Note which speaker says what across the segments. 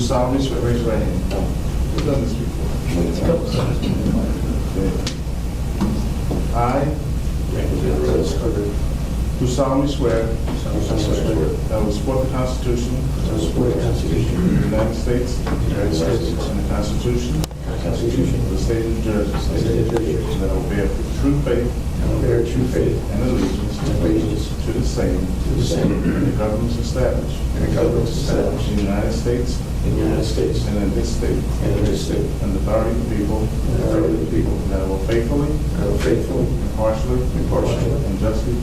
Speaker 1: solemnly swear, raise your right hand. We've done this before. I do solemnly swear that I will support the Constitution of the United States
Speaker 2: United States.
Speaker 1: and the Constitution of the State of New Jersey, and that I will bear true faith and allegiance to the same and the governments established in the United States and in this state and the authority of the people.
Speaker 2: And the authority of the people.
Speaker 1: And that I will faithfully, impartially,
Speaker 2: Impartially.
Speaker 1: and justly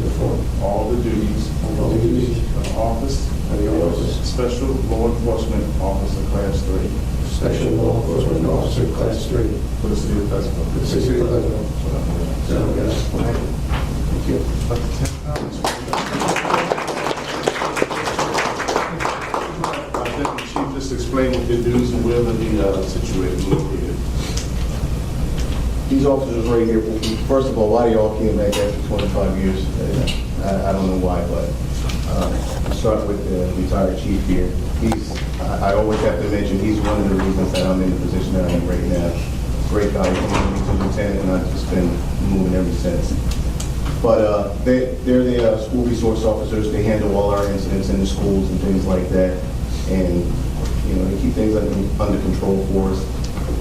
Speaker 1: perform all the duties
Speaker 2: All the duties.
Speaker 1: of the office
Speaker 2: Of the office.
Speaker 1: Special Law Enforcement Officer Class 3
Speaker 2: Special Law Enforcement Officer Class 3.
Speaker 1: for the city of Pleasantville.
Speaker 2: For the city of Pleasantville.
Speaker 1: So help me God.
Speaker 2: So help me God. Thank you.
Speaker 1: I think the chief just explained what their duties and where they're uh, situated, located.
Speaker 3: These officers right here, first of all, why y'all came back after 25 years? Uh, I I don't know why, but um, start with the retired chief here. He's, I I always have to mention, he's one of the reasons that I'm in the position that I am right now. Great guy, he's a lieutenant, and I've just been moving ever since. But uh, they, they're the uh, school resource officers, they handle all our incidents in the schools and things like that. And, you know, they keep things under, under control for us.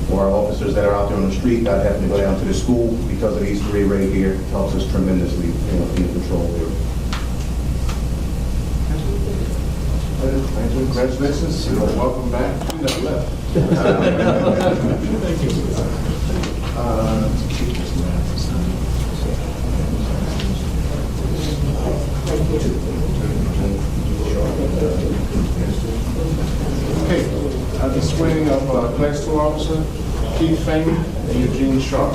Speaker 3: For our officers that are out there on the street, not having to go down to the school because of these three right here, helps us tremendously, you know, be in control there.
Speaker 1: Congratulations, and welcome back. You never left. Okay, at the swearing of uh, Class 2 Officer Keith Fane and Eugene Sharp.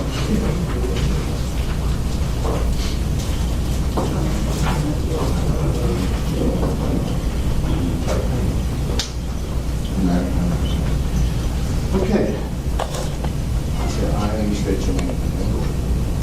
Speaker 1: Okay.
Speaker 3: Yeah, I understand your name.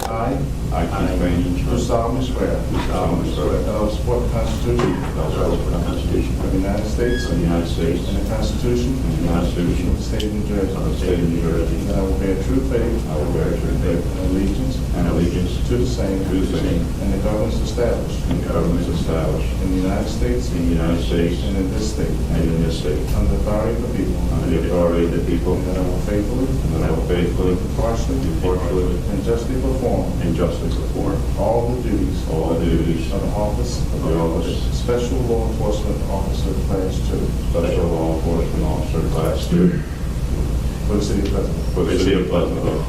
Speaker 1: I
Speaker 4: I, Keith Rainey,
Speaker 1: do
Speaker 4: do
Speaker 1: solemnly swear Um,
Speaker 4: solemnly swear
Speaker 1: that I will support the Constitution
Speaker 4: that I will support the Constitution
Speaker 1: of the United States
Speaker 4: of the United States
Speaker 1: and the Constitution
Speaker 4: and the Constitution
Speaker 1: of the State of New
Speaker 4: of the
Speaker 1: Jersey,
Speaker 4: State of New
Speaker 1: and
Speaker 4: Jersey.
Speaker 1: that I will bear true faith
Speaker 4: I will bear true faith
Speaker 1: and allegiance
Speaker 4: and allegiance
Speaker 1: to the same
Speaker 4: to the same
Speaker 1: and the governments established
Speaker 4: and governments established
Speaker 1: in the United States
Speaker 4: in the United States
Speaker 1: and in this state
Speaker 4: and in this state
Speaker 1: under the authority of the people,
Speaker 4: under the authority of the people
Speaker 1: and that I will faithfully,
Speaker 4: and that I will faithfully,
Speaker 1: impartially,
Speaker 4: impartially,
Speaker 1: and justly perform
Speaker 4: and justly perform
Speaker 1: all the duties
Speaker 4: all the duties
Speaker 1: of
Speaker 4: of
Speaker 1: the office
Speaker 4: Of the office.
Speaker 1: Special Law Enforcement Officer Class Two
Speaker 4: Special Law Enforcement Officer Class 2
Speaker 1: for the city of Pleasantville.
Speaker 4: for the City of Pleasantville,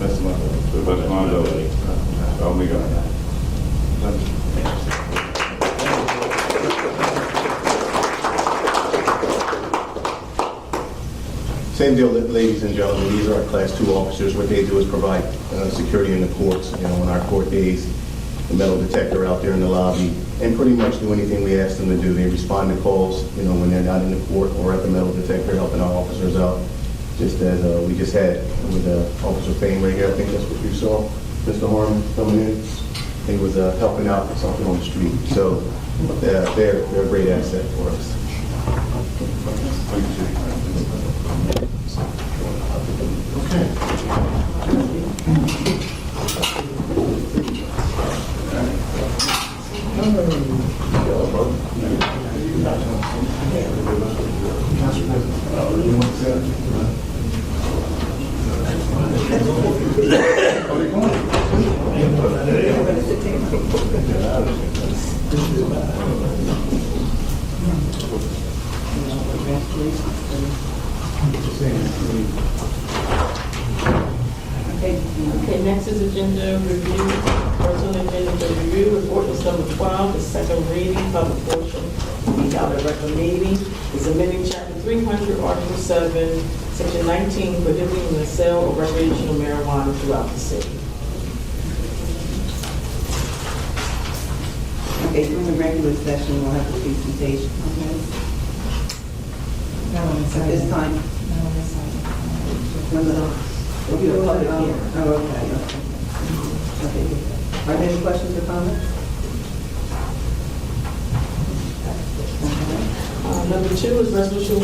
Speaker 1: That's my vote.
Speaker 4: to the best of my ability. So help me God.
Speaker 3: Same deal, la- ladies and gentlemen, these are our Class 2 officers. What they do is provide uh, security in the courts, you know, on our court days, the metal detector out there in the lobby, and pretty much do anything we ask them to do. They respond to calls, you know, when they're not in the court or at the metal detector, helping our officers out, just as uh, we just had with uh, Officer Payne right here, I think that's what you saw, Mr. Harmon coming in. He was uh, helping out with something on the street, so uh, they're they're a great asset for us.
Speaker 5: Okay, Okay. next is agenda review, first on the agenda is the review report is number 12, the second reading, public portion, we got a recommending, is amending chapter 300, article 7, section 19, prohibiting the sale of recreational marijuana throughout the city.
Speaker 6: Okay, during the regular session, we'll have a presentation. Okay.
Speaker 7: No one
Speaker 6: At this
Speaker 7: decided.
Speaker 6: time,
Speaker 7: No one decided.
Speaker 6: remember, we'll do a public hearing. Oh, okay, okay. Okay. Are there any questions or comments?
Speaker 5: Uh, Number two is resolution